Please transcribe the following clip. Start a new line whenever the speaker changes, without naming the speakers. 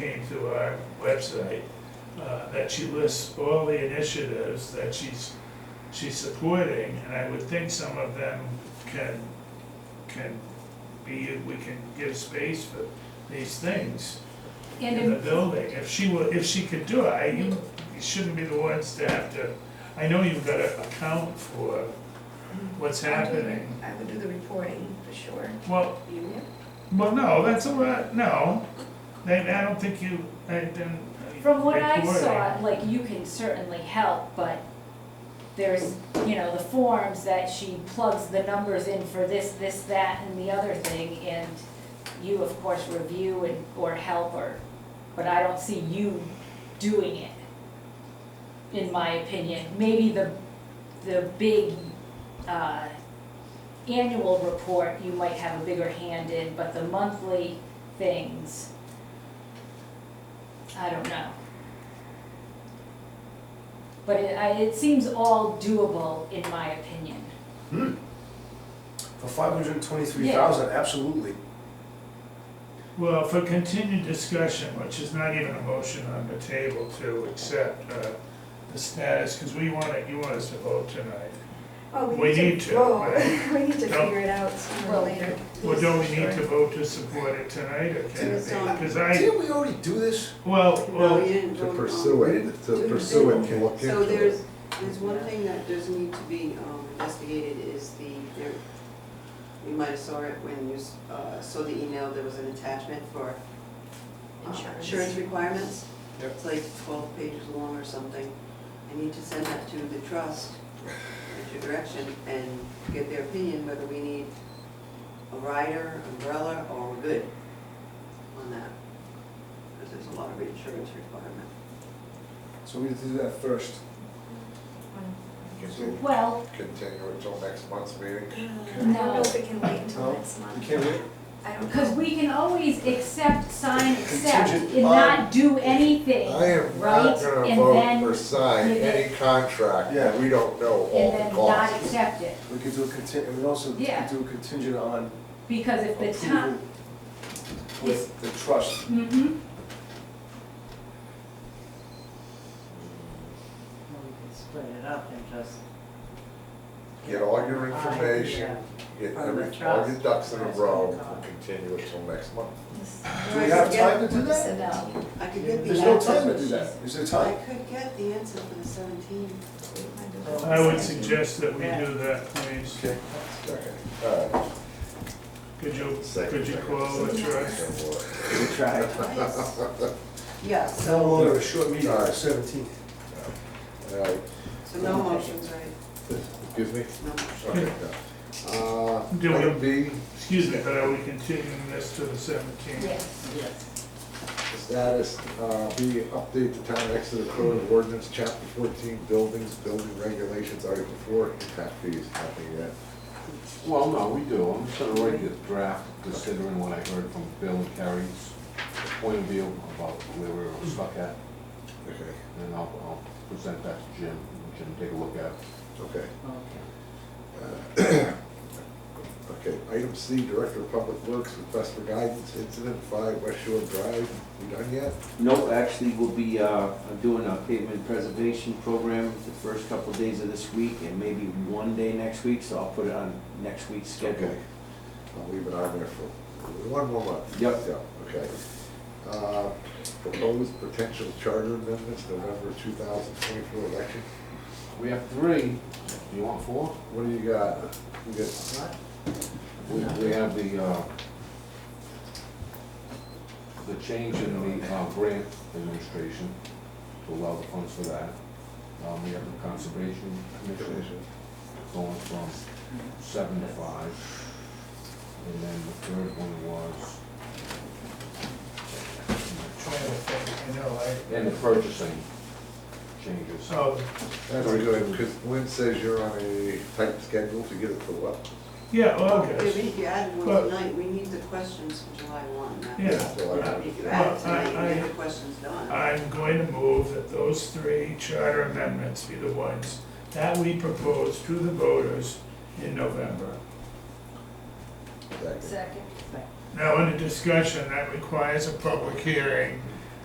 to our website, uh, that she lists all the initiatives that she's, she's supporting, and I would think some of them can, can be, we can give space for these things
And
in the
in-
building, if she will, if she could do it, I, you shouldn't be the ones to have to, I know you've gotta account for what's
I would do the-
happening.
I would do the reporting, for sure.
Well,
You would?
well, no, that's a lot, no, I, I don't think you, I didn't.
from what I
recording.
saw, like, you can certainly help, but there's, you know, the forms that she plugs the numbers in for this, this, that, and the other thing, and you, of course, review and, or help her, but I don't see you doing it, in my opinion. Maybe the, the big, uh, annual report, you might have a bigger hand in, but the monthly things, I don't know. But it, I, it seems all doable, in my opinion.
Hmm. For five hundred and twenty-three thousand, absolutely.
Well, for continued discussion, which is not even a motion on the table to accept, uh, the status, cause we wanna, you want us to vote tonight.
Oh,
We
we
need
need
to,
to, whoa,
right?
we need to
Don't-
figure it out sooner
Well,
or later.
Well, don't we need to
Sure.
vote to support it tonight, or can it
Tuesday.
be? Cause I,
Didn't we already do this?
well,
No, you
well,
didn't
To
vote on-
pursue it, to pursue it and look into it.
So there's, there's one thing that does need to be um, investigated is the, there, you might have saw it when you s- uh, saw the email, there was an attachment for uh, insurance
Insurance.
requirements.
Yep.
It's like twelve pages long or something. I need to send that to the trust, at your direction, and get their opinion whether we need a rider, umbrella, or we're good on that. Because there's a lot of insurance requirement.
So we did that first.
Continue
well,
continue until next month's meeting.
I don't know if it can wait until
No,
next
You
month.
can't wait.
I don't
because
know.
we can always accept, sign, accept,
Contingent
and
on-
not do
I
anything,
am
right?
not gonna
And
vote
then-
for sign
you get-
any contract that we don't know all
And
the
then not
costs.
accept it,
We could do a contingent, we also
Yeah.
could do a contingent on
because if the
approval
time,
with the trust.
hmm
Well, we could split it up and just.
Get all your information,
Idea.
get
From
every,
the
all your
trust.
ducks in a
That's
row,
what
and
I
continue until next month.
Do we have time to do that?
no,
I could get the.
There's no
answer-
time to do that. Is there
I
time?
could get the answer for the seventeenth.
I would suggest that we do that, please.
Okay.
Okay, all right.
Could you,
Uh, Second,
could you
second,
call the
second,
trust?
second, boy.
We tried.
Yeah,
How
so,
long of a short meeting,
All right.
seventeenth?
All right,
so no motions, right?
excuse me?
No motions.
Okay, no. Uh,
Do we-
item B,
Excuse me, but are we continuing this to the seventeenth?
yes.
Yes.
Status, uh, B, update the town Exeter Code of Ordinance, chapter fourteen, buildings, building regulations, article four, impact fees, nothing yet.
Well, no, we do. I'm just gonna write the draft considering what I heard from Bill and Carrie's point of view about where we were stuck at.
Okay,
And I'll, I'll present that to Jim, and Jim take a look at it.
okay.
Okay.
Okay, item C, Director of Public Works, request for guidance, incident five West Shore Drive, we done yet?
No, actually, we'll be uh, doing a pavement preservation program the first couple days of this week and maybe one day next week, so I'll put it on next week's schedule.
Okay. I'll leave it on there for one more month.
Yep.
Yeah, okay. Uh, Proposed potential charter amendments, November two thousand twenty-four election,
We have three. Do you want four?
what do you got? You got
We, we have the, uh, the change in the uh, grant administration to allow the funds for that. Um, we have the conservation commission
Commission.
going from seven to five. And then the third one was,
Trying to think, I know, I.
and the purchasing changes.
Oh,
That's good, because Lynn says you're on a tight schedule to get it to what?
yeah,
If
August.
you add
Well-
one tonight, we need the questions for July one. That-
Yeah.
July.
If you
Well,
add
I-
tonight, we
I-
get the questions done.
I'm going to move that those three charter amendments be the ones that we propose to the voters in November.
Second.
Second.
Now, under discussion, that requires a public hearing